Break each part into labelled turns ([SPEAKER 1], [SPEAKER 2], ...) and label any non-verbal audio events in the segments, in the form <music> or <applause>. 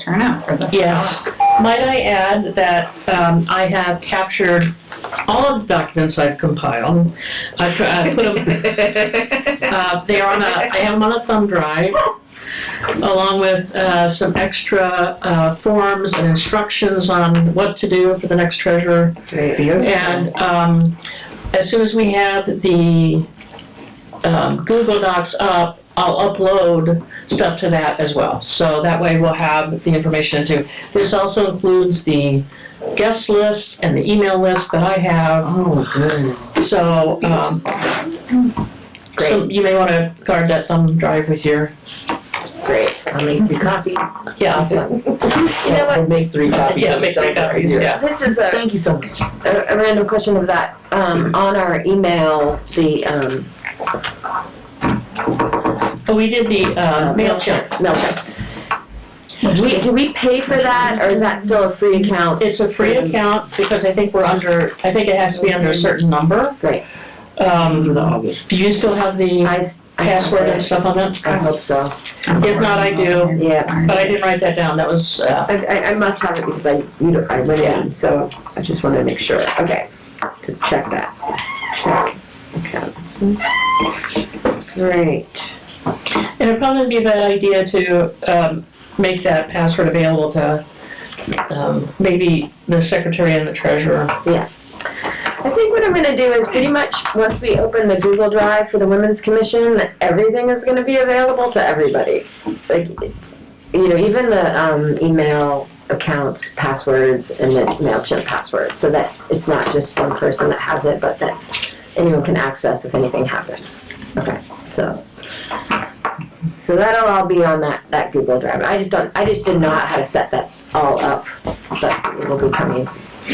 [SPEAKER 1] turnout for the.
[SPEAKER 2] Yes. Might I add that um, I have captured all of the documents I've compiled. I put- I put them, uh, they are on a, I have them on a thumb drive, along with uh, some extra uh, forms and instructions on what to do for the next treasurer. And um, as soon as we have the um, Google Docs up, I'll upload stuff to that as well. So that way we'll have the information too. This also includes the guest list and the email list that I have.
[SPEAKER 3] Oh, good.
[SPEAKER 2] So um, so you may want to guard that thumb drive with your,
[SPEAKER 3] Great. I'll make three copies.
[SPEAKER 2] yeah,
[SPEAKER 4] You know what?
[SPEAKER 3] We'll make three copies.
[SPEAKER 2] yeah, make that copies, yeah.
[SPEAKER 4] This is a,
[SPEAKER 3] Thank you so much.
[SPEAKER 4] a, a random question of that. Um, on our email, the um,
[SPEAKER 2] But we did the
[SPEAKER 4] uh,
[SPEAKER 2] uh, MailChimp.
[SPEAKER 4] MailChimp. Do we, do we pay for that or is that still a free account?
[SPEAKER 2] It's a free account because I think we're under, I think it has to be under a certain number.
[SPEAKER 4] Great.
[SPEAKER 3] These are the
[SPEAKER 2] Um,
[SPEAKER 3] August.
[SPEAKER 2] Do you still have the
[SPEAKER 4] I, s- I hope
[SPEAKER 2] password and
[SPEAKER 4] it-
[SPEAKER 2] stuff on that?
[SPEAKER 4] I hope so.
[SPEAKER 2] If not, I do,
[SPEAKER 4] Yeah.
[SPEAKER 2] but I didn't write that down, that was, uh,
[SPEAKER 4] I, I, I must have it because I, you know, I went in, so I just wanted to make sure. Okay. To check that. Check. Okay. Great.
[SPEAKER 2] it would probably be a bad idea to um, make that password available to um, maybe the secretary and the treasurer.
[SPEAKER 4] Yes. I think what I'm gonna do is pretty much, once we open the Google Drive for the Women's Commission, everything is gonna be available to everybody. Like, you know, even the, um, email accounts, passwords, and the MailChimp passwords, so that it's not just one person that has it, but that anyone can access if anything happens. Okay, so. So that'll all be on that, that Google Drive. I just don't, I just didn't know how to set that all up, but it'll be coming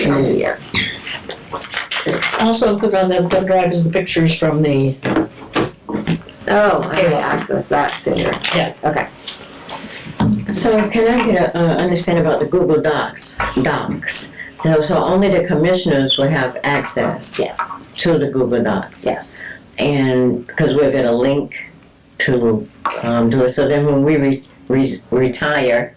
[SPEAKER 4] in the new year.
[SPEAKER 2] Also included on that thumb drive is the pictures from the,
[SPEAKER 4] Oh, I can
[SPEAKER 2] Yeah.
[SPEAKER 4] access that sooner.
[SPEAKER 2] Yeah.
[SPEAKER 4] Okay.
[SPEAKER 5] So can I get a, uh, understand about the Google Docs, docs? So, so only the commissioners will have access
[SPEAKER 4] Yes.
[SPEAKER 5] to the Google Docs?
[SPEAKER 4] Yes.
[SPEAKER 5] And, because we're gonna link to, um, do it, so then when we re- re- retire,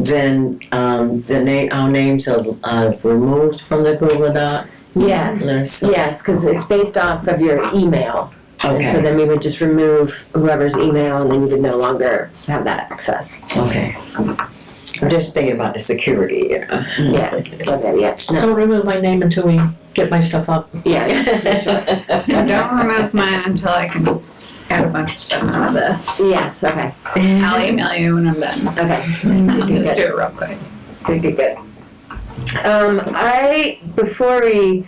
[SPEAKER 5] then, um, the name, our names are, uh, removed from the Google Doc?
[SPEAKER 4] Yes.
[SPEAKER 5] List.
[SPEAKER 4] Yes, because it's based off of your email. And so then we would just remove whoever's email and then you would no longer have that access.
[SPEAKER 5] Okay. I'm just thinking about the security, yeah.
[SPEAKER 2] Mm.
[SPEAKER 4] Yeah. Yeah, yeah, yeah. No.
[SPEAKER 2] don't remove my name until we get my stuff up.
[SPEAKER 4] Yeah. <laughs>
[SPEAKER 1] And don't remove mine until I can add a bunch of stuff out of this.
[SPEAKER 4] Yes, okay.
[SPEAKER 1] I'll email you when I'm done.
[SPEAKER 4] Okay.
[SPEAKER 1] Let's do it real quick.
[SPEAKER 4] Good, good, good. Um, I, before we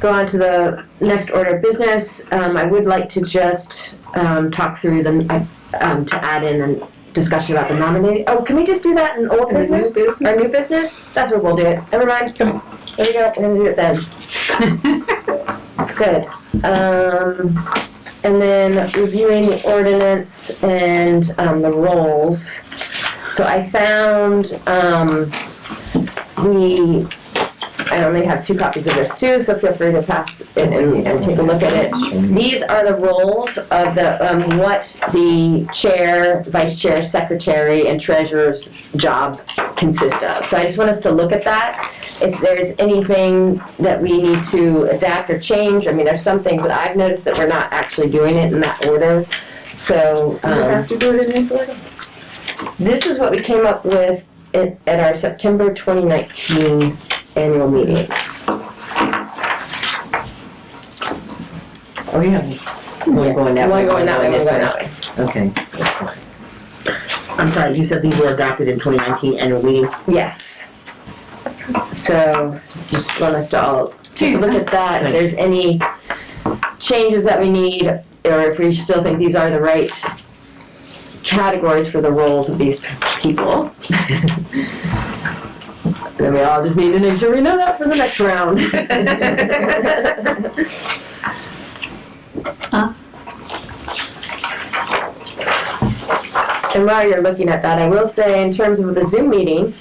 [SPEAKER 4] go on to the next order of business, um, I would like to just, um, talk through the, I- um, to add in a discussion about the nominated, oh, can we just do that in old
[SPEAKER 3] In the new
[SPEAKER 4] business? Or new business? That's where we'll do it, never mind, there we go, we're gonna do it then. <laughs> Good, um, and then reviewing the ordinance and, um, the roles. So I found, um, we, I only have two copies of this too, so feel free to pass it and, and take a look at it. These are the roles of the, um, what the chair, vice chair, secretary, and treasurer's jobs consist of. So I just want us to look at that. If there's anything that we need to adapt or change, I mean, there's some things that I've noticed that we're not actually doing it in that order. So, um.
[SPEAKER 3] to do it in this order?
[SPEAKER 4] This is what we came up with at, at our September 2019 annual meeting.
[SPEAKER 5] Oh, yeah. We're going that
[SPEAKER 4] One
[SPEAKER 5] way.
[SPEAKER 4] going that way, one
[SPEAKER 5] this
[SPEAKER 4] going that way.
[SPEAKER 5] Okay.
[SPEAKER 3] I'm sorry, you said these were adopted in 2019 annual meeting.
[SPEAKER 4] Yes. So, just want us to all take a look at that, if there's any changes that we need, or if we still think these are the right categories for the roles of these people. Then we all just need to make sure we know that for the next round. And while you're looking at that, I will say, in terms of the Zoom meeting,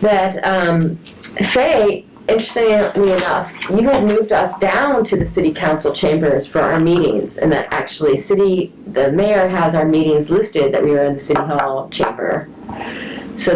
[SPEAKER 4] that um, Faye, interestingly enough, you had moved us down to the city council chambers for our meetings, and that actually city, the mayor has our meetings listed that we were in the city hall chamber.